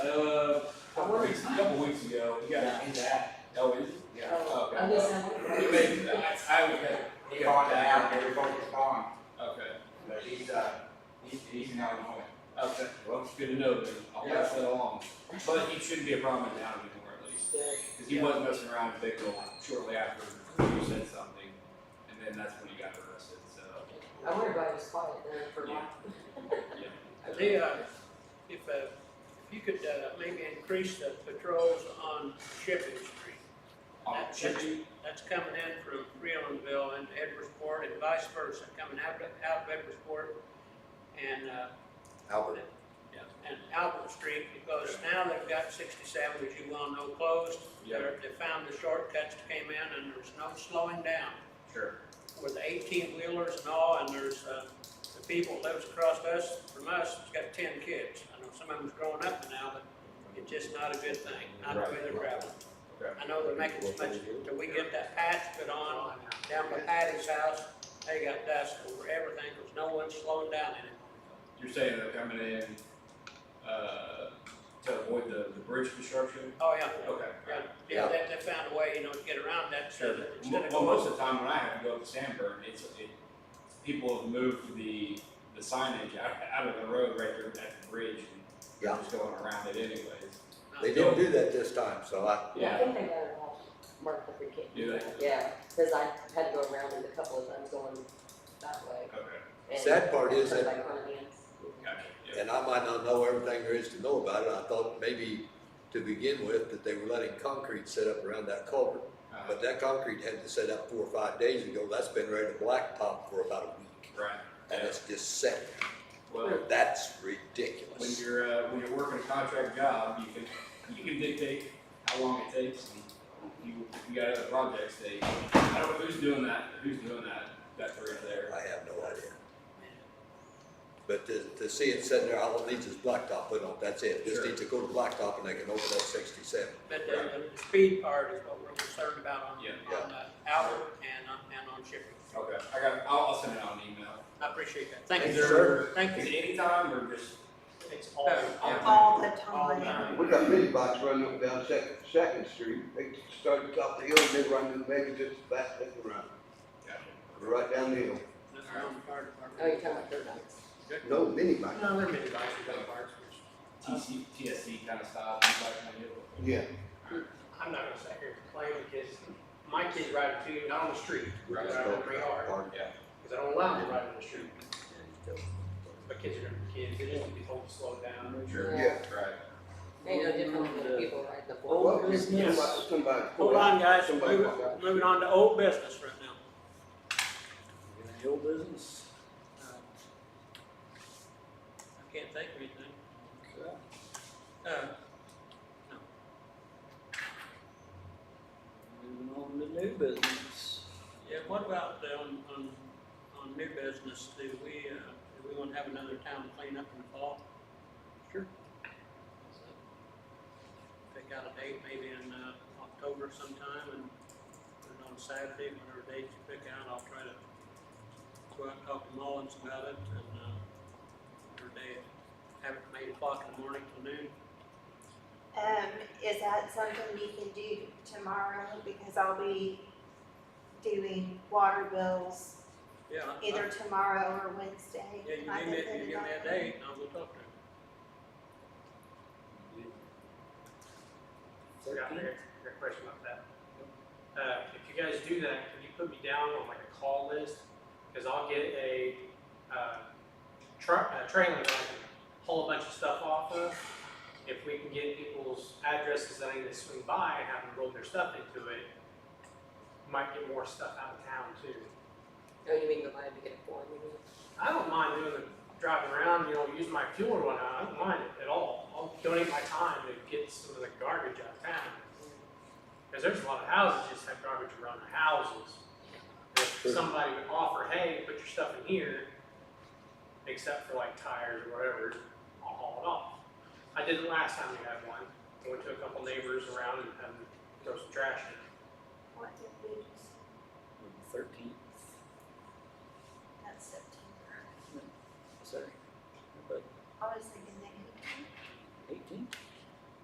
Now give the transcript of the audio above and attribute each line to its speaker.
Speaker 1: work.
Speaker 2: weeks, Uh, a couple weeks ago, you got in that. Oh, is it? Okay.
Speaker 1: I'm just saying.
Speaker 2: He made, I, I would have,
Speaker 3: He on now, they're focused on,
Speaker 2: okay,
Speaker 3: but he's, uh, he's, he's in Illinois.
Speaker 2: okay, well, it's good to know then, I'll pass that along. But he shouldn't be a problem in town anymore at least, cause he wasn't messing around with Bickle shortly after you said something. And then that's when he got arrested, so.
Speaker 1: I wonder if I was quiet there for a while.
Speaker 4: Leon, if, uh, if you could, uh, maybe increase the patrols on Shipping Street.
Speaker 2: On
Speaker 4: That-
Speaker 2: Chippy,
Speaker 4: That's coming in from Freelandville into Edwardsport and vice versa, coming out of, out of Edwardsport and, uh,
Speaker 5: Albert.
Speaker 4: and Albert Street, because now they've got sixty-seven, as you well know, closed.
Speaker 2: Yeah.
Speaker 4: They're- They found the shortcuts that came in and there's no slowing down
Speaker 2: sure,
Speaker 4: with eighteen wheelers and all, and there's, uh, the people that lives across us, from us, has got ten kids. I know some of them's growing up now, but it's just not a good thing, not the way they're traveling.
Speaker 2: okay,
Speaker 4: I know they're making so much, till we get that patch put on, down by Patty's house, they got dust over everything, cause no one's slowing down in it.
Speaker 2: you're saying they're coming in, uh, to avoid the, the bridge construction?
Speaker 4: Oh, yeah.
Speaker 2: Okay, alright.
Speaker 4: Yeah, Yeah, they, they found a way, you know, to get around that, so
Speaker 2: Sure.
Speaker 4: that instead of
Speaker 2: Well, most
Speaker 4: going,
Speaker 2: of the time when I have to go up to Sanborn, it's, it, people have moved the, the signage out, out of the road right there at the bridge. and they're
Speaker 5: Yeah.
Speaker 2: Just going around it anyways.
Speaker 5: They didn't do that this time, so I,
Speaker 1: I think they got it all marked up for kids.
Speaker 2: Do they?
Speaker 1: Yeah, cause I had to go around it a couple of times going that way.
Speaker 2: Okay,
Speaker 1: and
Speaker 5: Sad part is that-
Speaker 1: turned back on again.
Speaker 2: gotcha, yeah,
Speaker 5: and I might not know everything there is to know about it. I thought maybe to begin with that they were letting concrete set up around that culvert.
Speaker 2: uh,
Speaker 5: But that concrete had to set up four or five days ago. That's been ready to blacktop for about a week.
Speaker 2: right,
Speaker 5: And
Speaker 2: yeah,
Speaker 5: it's just set.
Speaker 2: well,
Speaker 5: That's
Speaker 2: when
Speaker 5: ridiculous.
Speaker 2: you're, uh, when you're working a contract job, you can, you can dictate how long it takes. and You, you got other projects, they, I don't know who's doing that, who's doing that, that bridge there.
Speaker 5: I have no idea. But to, to see it sitting there, all it needs is blacktop put on. That's it. Just
Speaker 2: Sure.
Speaker 5: needs to go to blacktop and they can open up sixty-seven.
Speaker 4: but the, the speed part is what we're concerned about on,
Speaker 2: Yeah.
Speaker 4: on uh, Albert and on, and on Shipping.
Speaker 2: Okay, I got, I'll, I'll send it out an email.
Speaker 4: I appreciate that, thank you,
Speaker 5: Thank
Speaker 2: Is
Speaker 5: you,
Speaker 4: sir,
Speaker 2: there,
Speaker 5: sir.
Speaker 4: thank
Speaker 2: is
Speaker 4: you.
Speaker 2: it anytime or just?
Speaker 4: It's all.
Speaker 6: all the time.
Speaker 2: All
Speaker 7: We got mini bikes running up and down Second, Second Street. They started top of the hill, and they run to maybe just about, they can run, right down the hill.
Speaker 4: That's our own fire department.
Speaker 1: Oh, you're talking about third dogs.
Speaker 7: No mini bikes.
Speaker 4: No, they're mid they're parts.
Speaker 2: TC, TSC kind of style, you guys kind of do.
Speaker 7: Yeah.
Speaker 4: I'm not gonna sit here and complain because my kids ride it too, not on the street,
Speaker 2: Right.
Speaker 4: Right, I'm pretty hard.
Speaker 5: Pardon?
Speaker 4: because I don't allow them to ride on the street. My kids are gonna be kids, they just need to be told to slow down.
Speaker 2: Sure.
Speaker 7: Yeah.
Speaker 2: Right.
Speaker 1: They know different than people ride the
Speaker 7: Well,
Speaker 1: four wheelers.
Speaker 7: somebody- Somebody.
Speaker 4: Hold on, guys,
Speaker 7: Somebody-
Speaker 4: moving, moving on to old business right now.
Speaker 8: Any old business?
Speaker 4: Uh, I can't think of anything.
Speaker 8: Okay.
Speaker 4: Uh,
Speaker 8: Moving on to new business.
Speaker 4: yeah, what about the, on, on, on new business, do we, uh, do we wanna have another town cleanup in the fall?
Speaker 8: Sure.
Speaker 4: Pick out a date maybe in, uh, October sometime and put it on Saturday, whatever date you pick out, I'll try to go out and talk to Mullins about it and, uh, whatever day, have it from eight o'clock in the morning till noon.
Speaker 6: Um, is that something we can do tomorrow? Because I'll be doing water bills
Speaker 4: Yeah. I- I-
Speaker 6: either tomorrow or Wednesday.
Speaker 4: Uh-huh. Yeah, you
Speaker 6: I
Speaker 4: give me, you
Speaker 6: can put it
Speaker 4: give me
Speaker 6: on.
Speaker 4: a date and I'll go talk to him.
Speaker 9: Yeah, I got I got a question about that. Uh, if you guys do that, can you put me down on like a call list? Cause I'll get a, uh, truck, a trailer that I can haul a bunch of stuff off of. If we can get people's addresses that I need to swing by and have them roll their stuff into it, might get more stuff out of town too.
Speaker 1: Oh, you mean the line to get a four wheeler?
Speaker 9: I don't mind doing the driving around, you know, using my fuel or whatnot, I don't mind it at all. I'll donate my time to get some of the garbage out of town. Cause there's a lot of houses just have garbage around the houses. If
Speaker 5: Sure.
Speaker 9: somebody would offer, hey, put your stuff in here, except for like tires or whatever, I'll haul it off. I did it last time we had one, I went to a couple neighbors around and had them throw some trash in.
Speaker 6: What did we just,
Speaker 8: Thirteenth,
Speaker 6: that's September.
Speaker 8: sorry, but
Speaker 6: I was thinking that
Speaker 8: eighteenth,